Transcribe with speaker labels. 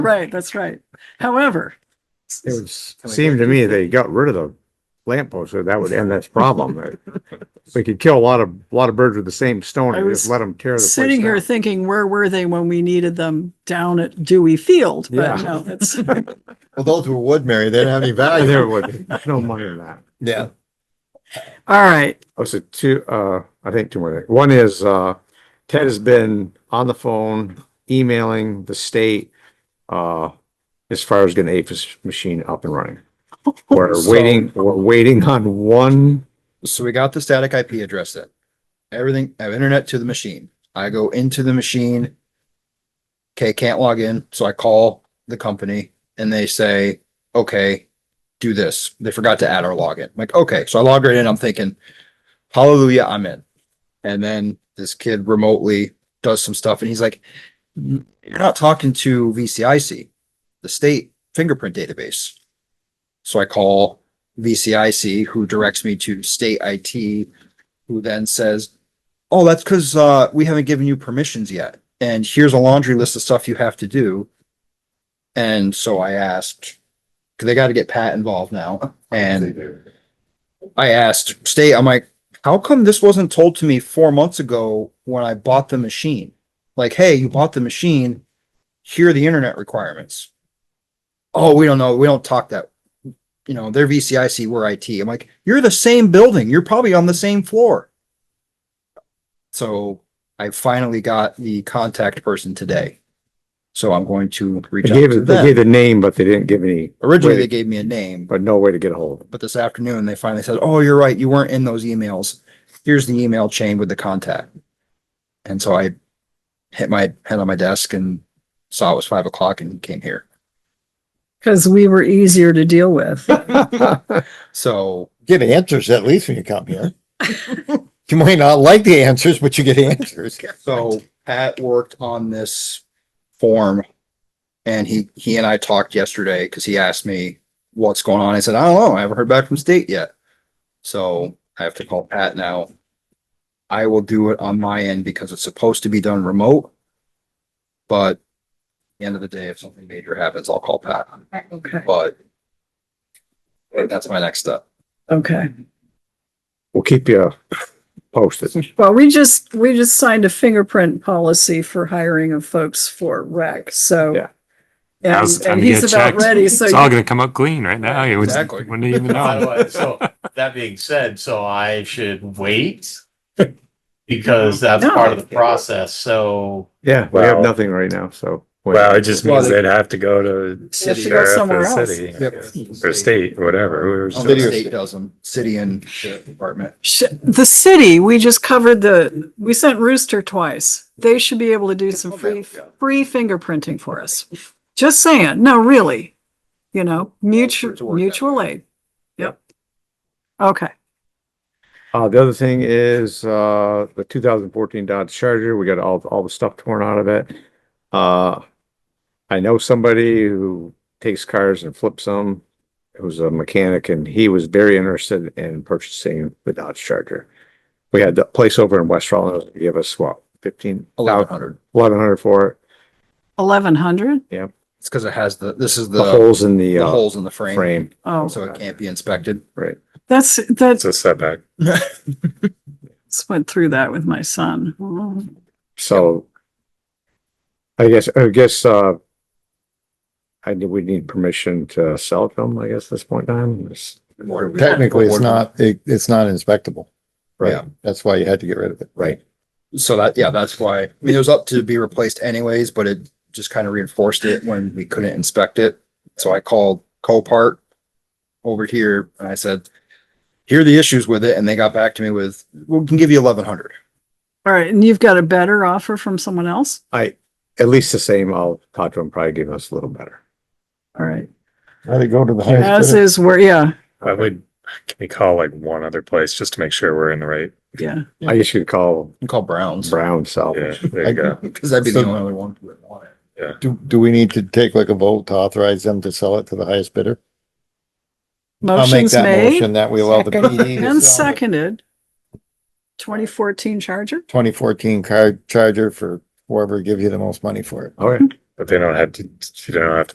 Speaker 1: Right, that's right. However,
Speaker 2: It would s- seem to me they got rid of the lamp post, so that would end this problem. We could kill a lot of, a lot of birds with the same stone
Speaker 1: I
Speaker 2: and just
Speaker 1: was
Speaker 2: let them tear the place
Speaker 1: sitting here
Speaker 2: down.
Speaker 1: thinking, where were they when we needed them down at Dewey Field? But
Speaker 2: Yeah.
Speaker 1: no, that's,
Speaker 3: Well, those were wood, Mary. They didn't have any
Speaker 2: And
Speaker 3: value.
Speaker 2: There would, be no money in that.
Speaker 3: Yeah.
Speaker 1: all right.
Speaker 2: Oh, so two, uh, I think two more. things. One is, uh, Ted has been on the phone emailing the state, uh, as far as getting APIS machine up and running. We're
Speaker 3: So-
Speaker 2: waiting, we're waiting on one,
Speaker 3: So we got the static IP address in. Everything, I have internet to the machine. I go into the machine. Okay, can't log in. So I call the company and they say, okay, do this. They forgot to add our login. I'm like, okay. So I log right in. I'm thinking, hallelujah, I'm in. And then this kid remotely does some stuff and he's like, "N- you're not talking to VCIC, the state fingerprint database. So I call VCIC, who directs me to state IT, who then says, oh, that's because, uh, we haven't given you permissions yet. And here's a laundry list of stuff you have to do. And so I asked, because they got to get Pat involved now. And I asked state, I'm like, how come this wasn't told to me four months ago when I bought the machine? Like, hey, you bought the machine. Here are the internet requirements. Oh, we don't know. We don't talk that you know, they're VCIC, we're IT. I'm like, you're the same building. You're probably on the same floor. So I finally got the contact person today. So I'm going to
Speaker 2: they
Speaker 3: reach out
Speaker 2: gave,
Speaker 3: to
Speaker 2: they gave
Speaker 3: them.
Speaker 2: the name, but they didn't give any,
Speaker 3: Originally, they gave me a name,
Speaker 2: but no way to get a hold of it.
Speaker 3: but this afternoon they finally said, oh, you're right. You weren't in those emails. Here's the email chain with the contact. And so I hit my head on my desk and saw it was five o'clock and came here.
Speaker 1: Cause we were easier to deal with.
Speaker 3: So
Speaker 4: get answers at least when you come here. You might not like the answers, but you get answers.
Speaker 3: So Pat worked on this form and he, he and I talked yesterday because he asked me what's going on. I said, I don't know. I haven't heard back from state yet. So I have to call Pat now. I will do it on my end because it's supposed to be done remote. But at the end of the day, if something major happens, I'll call Pat,
Speaker 1: Okay,
Speaker 3: but that's my next step.
Speaker 1: okay.
Speaker 2: We'll keep you posted.
Speaker 1: Well, we just, we just signed a fingerprint policy for hiring of folks for rec, so.
Speaker 2: Yeah.
Speaker 1: And,
Speaker 5: Now's the time
Speaker 1: and
Speaker 5: to
Speaker 1: he's
Speaker 5: get it
Speaker 1: about
Speaker 5: checked.
Speaker 1: ready, so.
Speaker 5: It's all gonna come up clean right now. It was-
Speaker 3: Exactly.
Speaker 5: Wouldn't even
Speaker 6: By the
Speaker 5: know.
Speaker 6: way, so that being said, so I should wait because that's
Speaker 1: No.
Speaker 6: part of the process. So
Speaker 2: Yeah, we have
Speaker 7: Well-
Speaker 2: nothing right now, so.
Speaker 7: Well, it just
Speaker 3: Well,
Speaker 7: means
Speaker 3: they-
Speaker 7: they'd have to go to
Speaker 1: City.
Speaker 7: city or if
Speaker 1: Somewhere
Speaker 7: the
Speaker 1: else.
Speaker 7: city
Speaker 3: Yep.
Speaker 7: or state, whatever. We were
Speaker 3: The
Speaker 7: just-
Speaker 3: State does them, city and sheriff department.
Speaker 1: Sh- The city, we just covered the, we sent Rooster twice. They should be able to do some free, free fingerprinting for us. Just saying, no, really, you know,
Speaker 3: It's
Speaker 1: mutual,
Speaker 3: worked out.
Speaker 1: mutual aid. Yep. Okay,
Speaker 2: Uh, the other thing is, uh, the two thousand fourteen Dodge Charger, we got all, all the stuff torn out of it. Uh, I know somebody who takes cars and flips them, who's a mechanic, and he was very interested in purchasing the Dodge Charger. We had the place over in West Rollins, give us what, fifteen,
Speaker 3: Eleven
Speaker 2: eleven
Speaker 3: hundred.
Speaker 2: hundred for it,
Speaker 1: eleven hundred?
Speaker 3: It's because it has the, this is
Speaker 2: the
Speaker 3: the,
Speaker 2: holes in the,
Speaker 3: the
Speaker 2: uh,
Speaker 3: holes in the frame,
Speaker 2: frame.
Speaker 1: Oh,
Speaker 3: so it can't be inspected.
Speaker 1: that's,
Speaker 7: It's
Speaker 1: that's,
Speaker 7: a setback.
Speaker 1: went through that with my son.
Speaker 2: So I guess, I guess, uh, I do, we need permission to sell it to them, I guess, at this point in time. It's-
Speaker 4: Technically, it's not, it, it's not inspectable.
Speaker 3: Yeah.
Speaker 4: Right. That's why you had to get rid of it.
Speaker 2: Right.
Speaker 3: So that, yeah, that's why, I mean, it was up to be replaced anyways, but it just kind of reinforced it when we couldn't inspect it. So I called Copart over here and I said, here are the issues with it. And they got back to me with, we can give you eleven hundred.
Speaker 1: All right, and you've got a better offer from someone else?
Speaker 2: I, at least the same, I'll talk to them, probably give us a little better.
Speaker 1: All right,
Speaker 4: Had to go to the highest
Speaker 1: as
Speaker 4: bidder.
Speaker 1: is where, yeah,
Speaker 7: I would, can we call like one other place just to make sure we're in the right?
Speaker 1: yeah.
Speaker 2: I guess you'd call
Speaker 3: You call Browns,
Speaker 2: Brown Salvage.
Speaker 7: Yeah, there you go.
Speaker 3: because that'd be the
Speaker 4: So-
Speaker 3: only other one who would want it.
Speaker 4: Do, do we need to take like a vote to authorize them to sell it to the highest bidder? I'll make
Speaker 1: Motion's
Speaker 4: that
Speaker 1: made
Speaker 4: motion that we allow the PD to
Speaker 1: and
Speaker 4: sell
Speaker 1: seconded. Twenty fourteen Charger?
Speaker 4: twenty fourteen car charger for whoever gives you the most money for it.
Speaker 2: Okay,
Speaker 7: But they don't have to, you don't have to